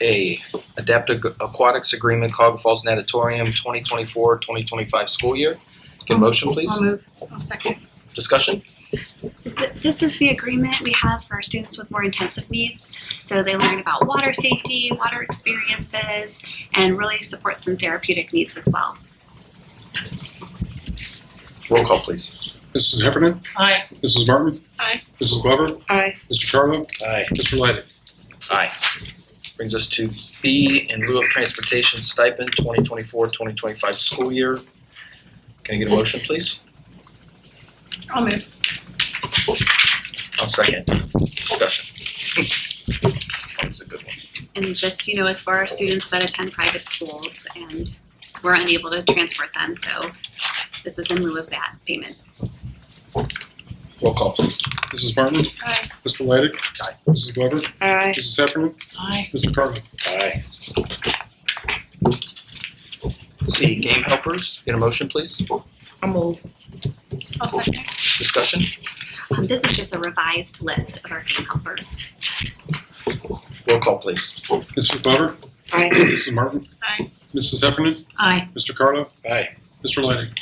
A, Adaptive Aquatics Agreement, Cog Falls Natatorium, 2024-2025 school year. Get a motion, please? I'll move. I'll second. Discussion? So th- this is the agreement we have for students with more intensive needs. So they learn about water safety, water experiences, and really support some therapeutic needs as well. Roll call, please. Mrs. Heffernan, Aye. Mrs. Martin. Aye. Mrs. Glover, Aye. Mr. Charlo, Aye. Mr. Lydic. Aye. Brings us to B, in lieu of transportation stipend, 2024-2025 school year. Can I get a motion, please? I'll move. I'll second. Discussion. That was a good one. And this, you know, is for our students that attend private schools and we're unable to transport them. So this is in lieu of that payment. Roll call, please. Mrs. Martin. Aye. Mr. Lydic. Aye. Mrs. Glover, Aye. Mrs. Heffernan, Aye. Mr. Charlo. Aye. C, game helpers. Get a motion, please? I'll move. I'll second. Discussion? Um, this is just a revised list of our game helpers. Roll call, please. Mrs. Glover. Aye. Mrs. Martin. Aye. Mrs. Heffernan, Aye. Mr. Carlo, Aye. Mr. Lydic.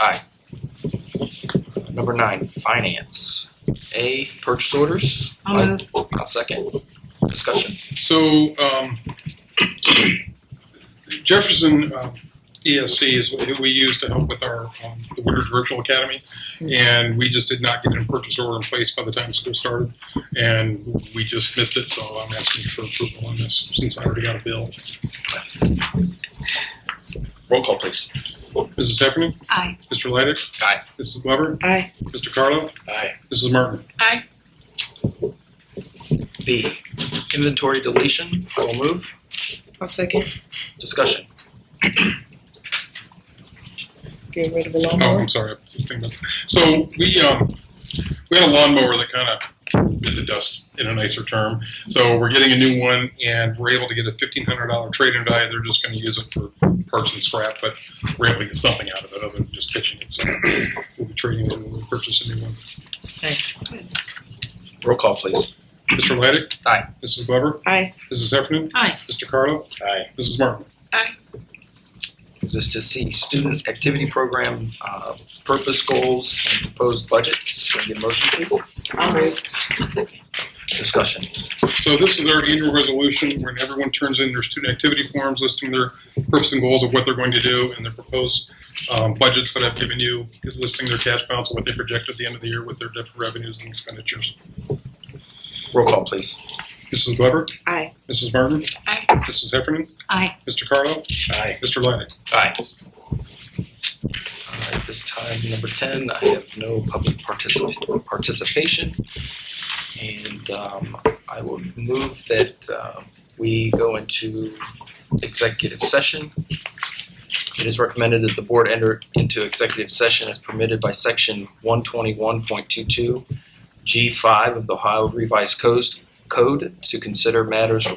Number nine, finance. A, purchase orders. I'll move. I'll second. Discussion. So um, Jefferson uh, ESC is who we use to help with our, um, the Woodbridge Virtual Academy. And we just did not get a purchase order in place by the time school started. And we just missed it, so I'm asking for approval on this since I already got a bill. Roll call, please. Mrs. Heffernan, Aye. Mr. Lydic. Aye. Mrs. Glover, Aye. Mr. Carlo, Aye. Mrs. Martin. Aye. B, inventory deletion. I will move. I'll second. Discussion. Get rid of a Oh, I'm sorry. I was thinking about- So we, um, we had a lawnmower that kind of bit the dust in a nicer term. So we're getting a new one and we're able to get a fifteen hundred dollar trade-in value. They're just gonna use it for parts and scrap, but we're able to get something out of it other than just pitching it. So we'll be trading it when we purchase a new one. Thanks. Roll call, please. Mr. Lydic? Aye. Mrs. Glover? Aye. Mrs. Heffernan, Aye. Mr. Carlo? Aye. Mrs. Martin? Moves us to C, student activity program, uh, purpose goals and proposed budgets. Can I get a motion, please? I'll move. Discussion. So this is our annual resolution when everyone turns in their student activity forms listing their purpose and goals of what they're going to do and their proposed um, budgets that I've given you, listing their cash balance and what they project at the end of the year with their different revenues and expenditures. Roll call, please. Mrs. Glover? Aye. Mrs. Martin? Aye. Mrs. Heffernan, Aye. Mr. Carlo? Aye. Mr. Lydic? Aye. All right, this time, number ten, I have no public particip- participation. And um, I will move that uh, we go into executive session. It is recommended that the board enter into executive session as permitted by section one twenty-one point two-two G five of the Ohio Revised Coast Code to consider matters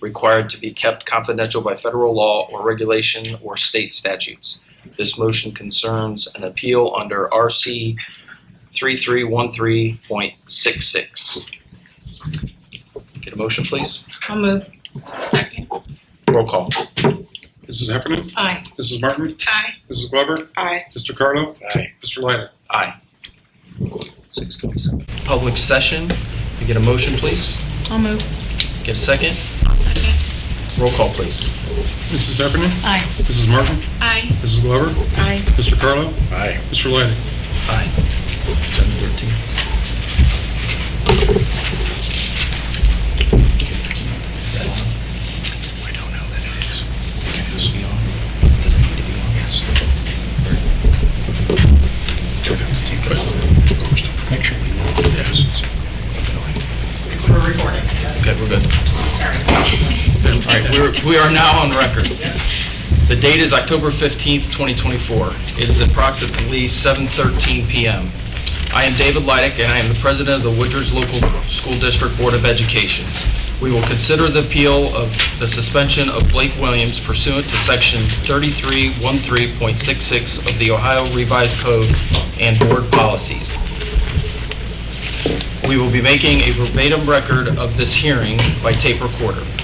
required to be kept confidential by federal law or regulation or state statutes. This motion concerns an appeal under RC 3313.66. Get a motion, please? I'll move. Second. Roll call. Mrs. Heffernan, Aye. Mrs. Martin? Aye. Mrs. Glover? Aye. Mr. Carlo? Aye. Mr. Lydic? Aye. 627. Public session. Can I Get a motion, please? I'll move. Get a second? I'll second. Roll call, please. Mrs. Heffernan, Aye. Mrs. Martin? Aye. Mrs. Glover? Aye. Mr. Carlo? Aye. Mr. Lydic? Aye. 713. Is that on? I don't know that it is. Does it need to be on? Does it need to be on? Yes. Turn down the TV. Make sure we know. Yes. Okay, we're good. All right, we're, we are now on record. The date is October 15th, 2024. It is approximately 7:13 PM. I am David Leidick, and I am the president of the Woodridge Local School District Board of Education. We will consider the appeal of the suspension of Blake Williams pursuant to Section 3313.66 of the Ohio Revised Code and Board Policies. We will be making a verbatim record of this hearing by tape recorder.